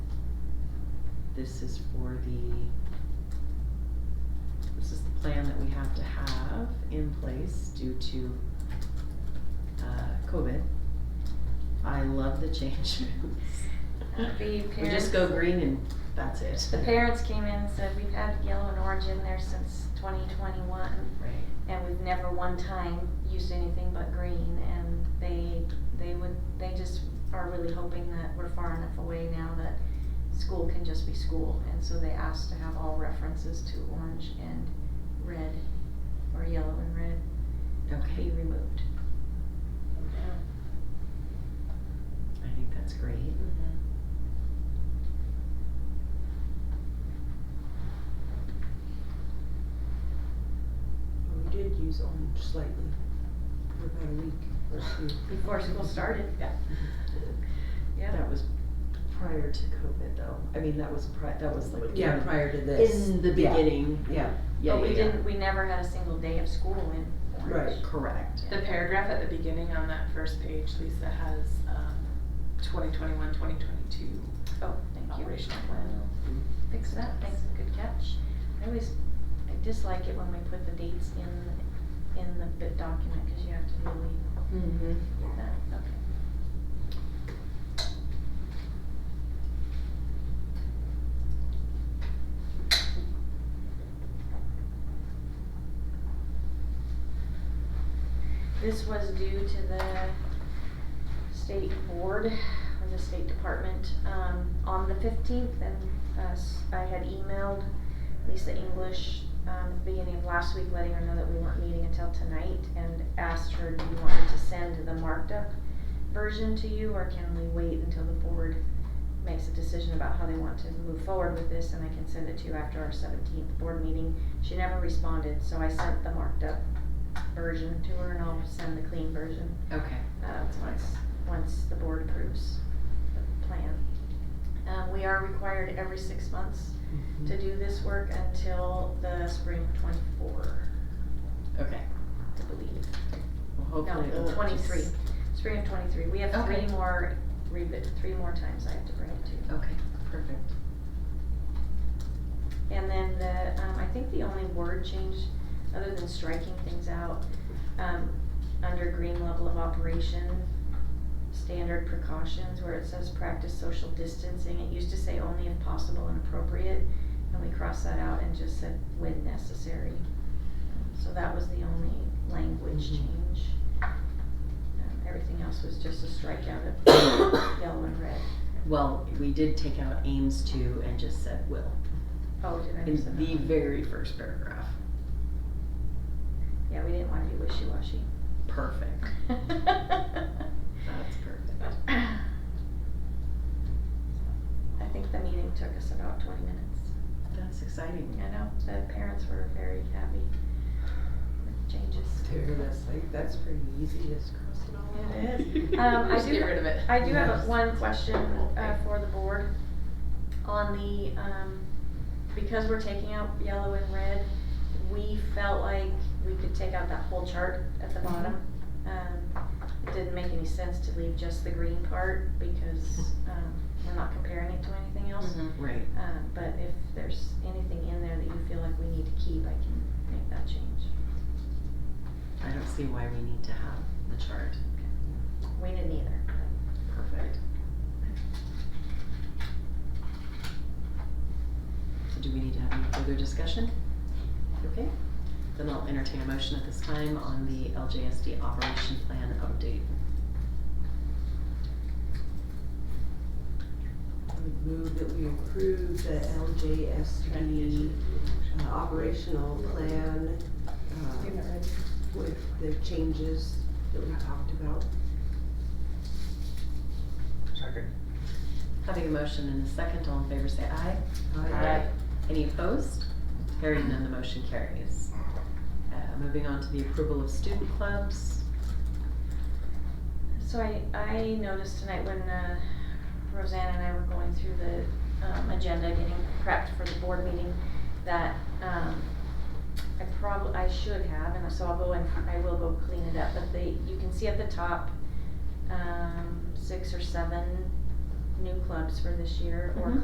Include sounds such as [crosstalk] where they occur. this is for the, this is the plan that we have to have in place due to, uh, COVID. I love the changes. [laughs] The We just parents, go green and that's it. the parents came in and said, we've had yellow and orange in there since twenty twenty-one, Right, and we've never one time used anything but green, and they, they would, they just are really hoping that we're far enough away now that school can just be school, and so they asked to have all references to orange and red, or yellow and red, be okay, removed. I think that's great. Well, We did use orange slightly for about a week or two Before school started. Yeah. Yeah, that was prior to COVID though. I mean, that was pri- that was like. Yeah, in- prior to this. In the Yeah. beginning, yeah, yeah, yeah, yeah. But we didn't, we never had a single day of school in orange. Right. Correct. The paragraph at the beginning on that first page, Lisa, has um, 2021, 2022 Oh, thank you. Mm-hmm. operational plan. Fix that, thanks, good catch. I always, I dislike it when we put the dates in, in the bit document, cause you have to really, Mm-hmm. that, okay. This was due to the state board or the state department, um, on the fifteenth and, uh, s- I had emailed Lisa English, um, at the beginning of last week, letting her know that we weren't meeting until tonight and asked her, do you want me to send the marked up version to you or can we wait until the board makes a decision about how they want to move forward with this and I can send it to you after our seventeenth board meeting? She never responded, so I sent the marked up version to her and I'll send the clean version Okay. uh, once, once the board approves the plan. Um, we are required every six months to do this work until the spring of twenty-four, Okay. I believe. Well, hopefully it'll No, just- twenty-three, spring of twenty-three. We have three Okay. more, revi- three more times I have to bring it to you. Okay, perfect. And then the, um, I think the only word change, other than striking things out, um, under green level of operation, standard precautions, where it says practice social distancing, it used to say only if possible and appropriate, and we crossed that out and just said when necessary. Um, So that was the only language Mhm. change. Um, everything else was just a strikeout of [coughs] yellow and red. Well, we did take out aims to and just said will Oh, did I in miss that? the very first paragraph. Yeah, we didn't wanna be wishy-washy. Perfect. That's perfect. I think the meeting took us about twenty minutes. That's exciting. I know, the parents were very happy with the changes. there, that's like, that's pretty easy, just crossing all It out. is. [laughs] Um, I Just do- get rid of it. I do have Yes. a- one question, uh, for the board. On the, um, because we're taking out yellow and red, we felt like we could take out that whole chart at the bottom. Um, it didn't make any sense to leave just the green part because, um, we're not comparing it to anything else. Right. Um, but if there's anything in there that you feel like we need to keep, I can make that change. I don't see why we need to have the chart. We didn't either. Perfect. So do we need to have any further discussion? Okay, then I'll entertain a motion at this time on the LJSD operation plan update. I would move that we approve the LJSD uh, operational plan, uh, with the changes that we talked about. Second. Having a motion and a second, all in favor say aye. I- Any opposed? Hearing none, the motion carries. Uh, moving on to the approval of student clubs. So I, I noticed tonight when uh, Roseanne and I were going through the um, agenda, getting prepped for the board meeting, that um, I probably, I should have, and so I'll go and, I will go clean it up, but the, you can see at the top, um, six or seven new clubs for this year, or Mhm.